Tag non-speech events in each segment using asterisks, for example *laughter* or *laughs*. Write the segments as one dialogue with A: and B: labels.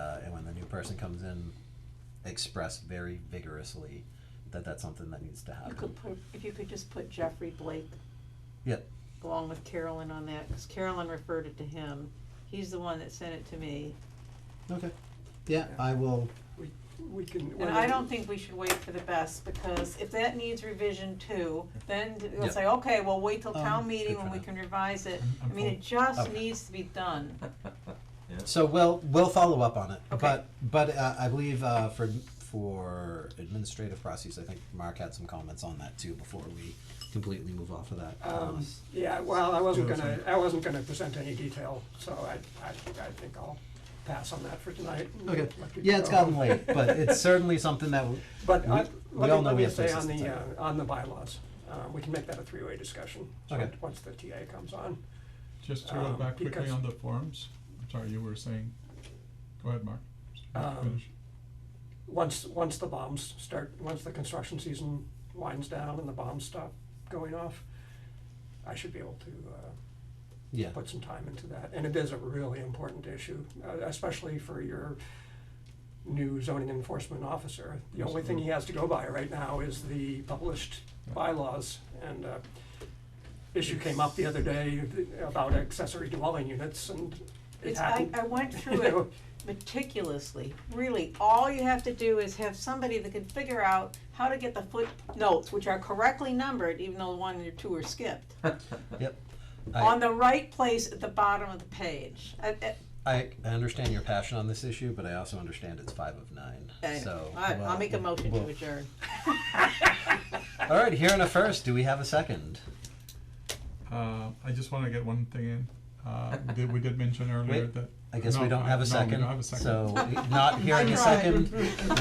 A: uh, person comes in, express very vigorously that that's something that needs to
B: You
A: happen.
B: could put, if you could just put Jeffrey Blake
A: Yep,
B: along with Carolyn on that, cause Carolyn referred it to him. He's the one that sent it to me,
A: okay, yeah, I will,
C: We, we can.
B: and I don't think we should wait for the best, because if that needs revision too, then
A: Yeah.
B: they'll say, okay, well, wait till town
D: Um,
B: meeting
A: good
B: when
A: for
B: we
A: now.
B: can revise it.
D: I'm- I'm
B: I mean,
D: cool.
B: it just
A: Okay.
B: needs to be done.
A: so we'll, we'll follow up on it.
B: Okay.
A: But, but uh, I believe uh, for, for administrative processes, I think Mark had some comments on that too before we completely move off of that.
C: Um, yeah, well, I wasn't
D: Do it
C: gonna, I wasn't gonna present any detail, so I, I, I think I'll pass on that for tonight. and
A: Okay,
C: let people
A: yeah, it's
C: go.
A: gotten late, but it's certainly something that, w-
C: But
A: we-
C: I,
A: we all
C: let me,
A: know
C: let
A: we
C: me
A: have
C: say
A: places
C: on
A: to
C: the, uh,
A: type.
C: on the bylaws, uh, we can make that a three-way discussion, so
A: Okay.
C: once the TA comes on.
D: Just to go
C: Um,
D: back quickly
C: because-
D: on the forms, I'm sorry, you were saying, go ahead, Mark.
C: Um,
D: Finish.
C: Once, once the bombs start, once the construction season winds down and the bombs stop going off, I should be able to, uh,
A: yeah,
C: put some time into that, and it is a really important issue, uh, especially for your new zoning enforcement officer. The only thing he has to go by right now is the published bylaws, and, uh, issue came up the other day about accessory dwelling units, and it
B: It's, I, uh,
C: happened.
B: I
D: *laughs*
B: went through
C: you
B: it
C: know.
B: meticulously, really, all you have to do is have somebody that can figure out how to get the footnotes, which are correctly numbered, even though one or two are skipped,
A: yep. I-
B: on the right place at the bottom of the page. I- I-
A: I, I understand your passion on this issue, but I also understand it's five of nine.
B: anyway,
A: So
B: I,
A: we'll-
B: I'll make a motion to
A: we'll-
B: adjourn.
A: All right, here in a first, do we have a second?
D: Uh, I just wanna get one thing in, uh, we did, we did mention earlier
A: Wait,
D: that.
A: I guess we
D: no,
A: don't
D: I-
A: have a
D: no, we
A: second.
D: don't have a second.
A: So
D: *laughs*
A: eh, not
B: *laughs*
C: *laughs*
A: hearing a second. *laughs*
D: I'll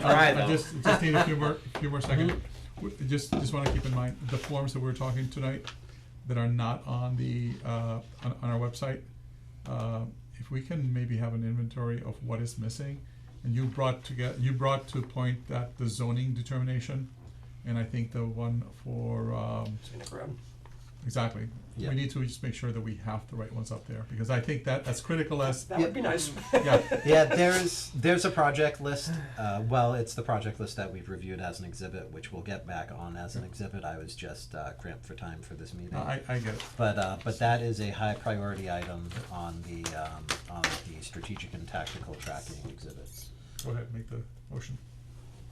E: try,
D: I
E: though.
D: just, just need a few more, a few more seconds. W- Just, just wanna keep in mind, the forms that we're talking tonight that are not on the, uh, on, on our website, uh, if we can maybe have an inventory of what is missing, and you brought together, you brought to a point that the zoning determination, and I think the one for, um,
C: Scenic road.
D: exactly.
A: Yeah.
D: We need to just make sure that we have the right ones up there, because I think that, as critical as,
C: That would be nice.
D: Yeah.
A: Yeah, there's there's a project list. Uh, well, it's the project list that we've reviewed as an exhibit, which we'll get back on as an exhibit. I was just uh, cramped for time for this meeting.
D: I, I get it.
A: But, uh, but that is a high priority item on the, um, on the strategic and tactical tracking exhibits.
D: Go ahead, make the motion.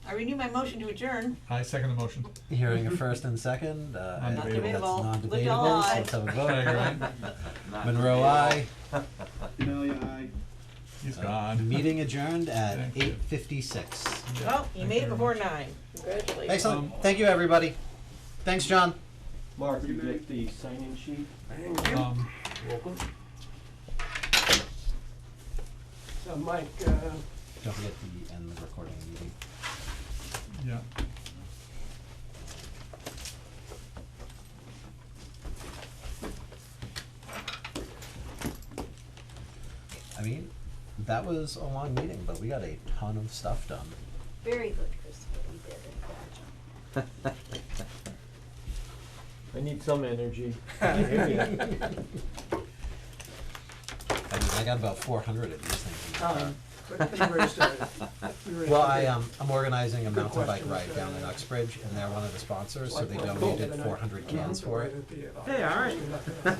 B: I renew my motion to adjourn.
D: I second the motion.
A: Hearing a first and second, uh, I agree that's
B: Non-debatable.
A: non-debatable, so let's have a vote.
D: Tiger,
A: *laughs*
D: aye.
A: Monroe, aye.
D: He's
A: Uh,
D: gone.
A: Meeting adjourned at
D: Thank you.
A: eight fifty-six.
B: Oh, you made
D: Thank you
B: it
D: very
B: before
D: much.
B: nine. Congratulations.
A: Excellent, thank you, Um, everybody. Thanks, John.
E: Mark, you get the sign-in sheet?
C: Thank you.
D: Um,
E: Welcome.
C: So Mike, uh,
A: Don't forget to end the recording of the meeting.
D: yeah.
A: I mean, that was a long meeting, but we got a ton of stuff done.
B: Very good, Christopher, you did it.
E: I need some energy. I um, hear ya.
A: I mean, I got about four hundred of these things.
C: *laughs* um, but you raised a- you
A: *laughs*
C: raised
A: Well,
C: a
A: I,
C: good-
A: um, I'm organizing a
C: Good
A: mountain bike
C: questions,
A: ride down in
C: uh,
A: Uxbridge, and they're one of the sponsors, so they
C: Like, well,
A: donated
C: cool.
A: four hundred
C: Uh,
A: cans for it.
E: Hey, all right.
A: *laughs*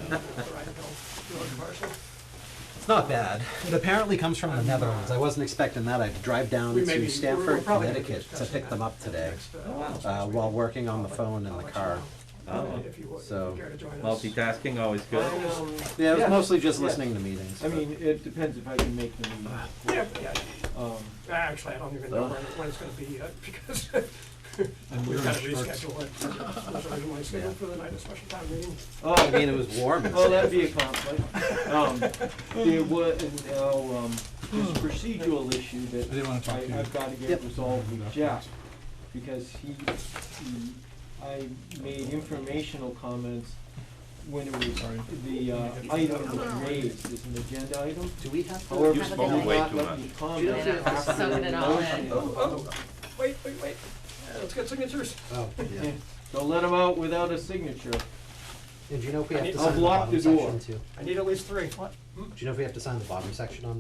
A: It's not bad. It apparently comes from the Netherlands. I wasn't expecting that. I had to drive down
C: We may
A: to
C: be- we're- we're
A: Stamford,
C: probably gonna be
A: Connecticut to
C: discussing
A: pick them
C: that
A: up today,
C: next, uh,
A: uh,
C: next
A: while
C: week.
A: working on
C: I'll
A: the
C: let-
A: phone in
C: I'll
A: the
C: let
A: car.
C: you know,
E: Oh.
C: if you would- if
A: So,
C: you care to join us.
F: Multitasking, always good.
A: Yeah, it was
C: Yeah.
A: mostly just
E: Yeah.
A: listening to meetings.
E: I
A: but-
E: mean, it depends if I can make the meeting.
C: Yeah, yeah,
E: Um,
C: actually, I don't even know
E: Ugh.
C: when, when it's gonna be yet, *laughs* because
D: And
C: we've
D: we're in
C: gotta
D: shorts.
C: reschedule it. It was originally scheduled for the night of special town meeting.
A: I
E: Oh,
A: mean, it was warm. and
E: oh, that'd
A: stuff.
E: be a conflict. Um, There was, now, um, this procedural issue
D: I didn't
E: that
D: wanna talk to
E: I,
D: you.
E: I've gotta
A: Yep.
E: get resolved with Jack. because he, he, I made informational comments when it was,
D: Sorry.
E: the uh, item was raised as an agenda item.
A: Do we have?
E: However,
F: You
E: he
F: smoke
E: did
F: way
E: not
F: too
E: let me
F: much.
E: comment
A: Yeah,
G: I'm just
E: after
G: soaking
E: the
G: it all in.
E: motion.
C: Oh, oh, wait, wait, wait, Uh, let's get signatures.
A: Oh, yeah.
E: Yeah, Don't let him out without a signature.
A: And do you know if we
C: I
A: have
C: need-
A: to
E: I'll
A: sign the
E: block
A: bottom
E: the door.
A: section too?
C: I need at least three. What?
A: Do you know if we have to sign the bottom section on